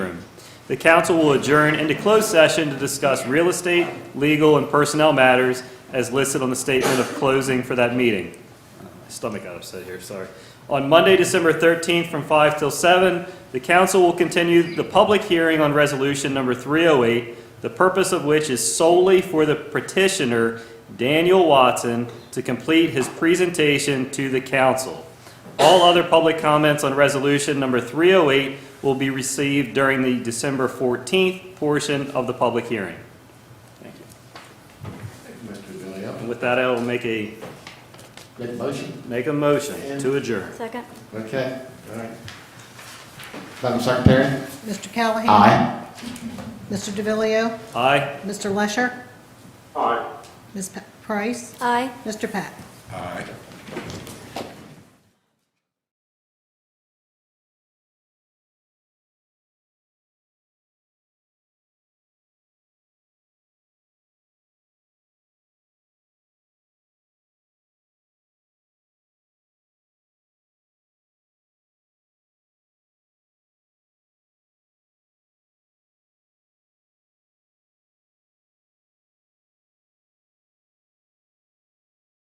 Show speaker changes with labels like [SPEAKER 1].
[SPEAKER 1] the council will adjourn into closed session to discuss real estate, legal, and personnel matters as listed on the statement of closing for that meeting. My Stomach got upset here, sorry. On Monday, December 13th, from 5 till 7, the council will continue the public hearing on resolution number 308, the purpose of which is solely for the petitioner, Daniel Watson, to complete his presentation to the council. All other public comments on resolution number 308 will be received during the December 14th portion of the public hearing. Thank you.
[SPEAKER 2] Mr. Villiam,
[SPEAKER 1] And with that, I will make a,
[SPEAKER 2] make motion.
[SPEAKER 1] make a motion to adjourn.
[SPEAKER 3] Second?
[SPEAKER 2] Okay, all right. Madam Secretary?
[SPEAKER 4] Mr. Callahan?
[SPEAKER 2] Aye.
[SPEAKER 4] Mr. DeVillio,
[SPEAKER 1] Aye.
[SPEAKER 4] Mr. Lesher? Aye. Ms. Pa- Price?
[SPEAKER 3] Aye.
[SPEAKER 4] Mr. Pack?
[SPEAKER 2] Aye.